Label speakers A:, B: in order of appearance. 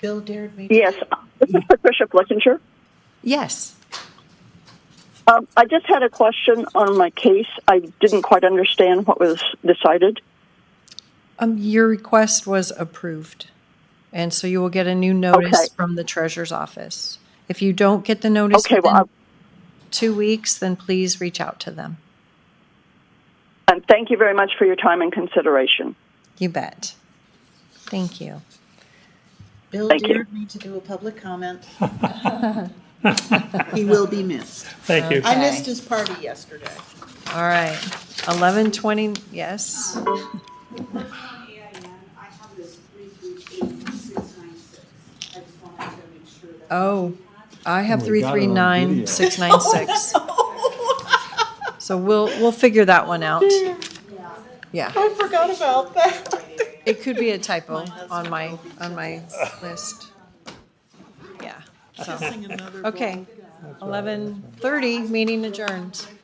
A: Bill dared me. to-
B: Yes, this is Patricia Flickinger.
A: Yes.
B: Um, I just had a question on my case. I didn't quite understand what was decided.
A: Um, your request was approved. And so you will get a new notice
B: Okay.
A: from the treasurer's office. If you don't get the notice
B: Okay, well, um,
A: within
B: I-
A: two weeks, then please reach out to them.
B: And thank you very much for your time and consideration.
A: You bet. Thank you.
C: Bill
B: Thank you.
C: dared me to do a public comment. He will be missed.
D: Thank you.
C: I
A: Okay.
C: missed his party yesterday.
A: All right. Eleven twenty, yes.
E: On AIN, I have this three three eight six nine six. I just wanted to make sure that.
A: Oh, I have
F: We
A: three
F: got it
A: three
F: on
A: nine
F: video.
A: six nine six. So we'll, we'll figure that one out. Yeah.
C: I forgot about that.
A: It could be a typo on my, on my list. Yeah, so,
C: Another
A: okay. Eleven thirty, meeting adjourned.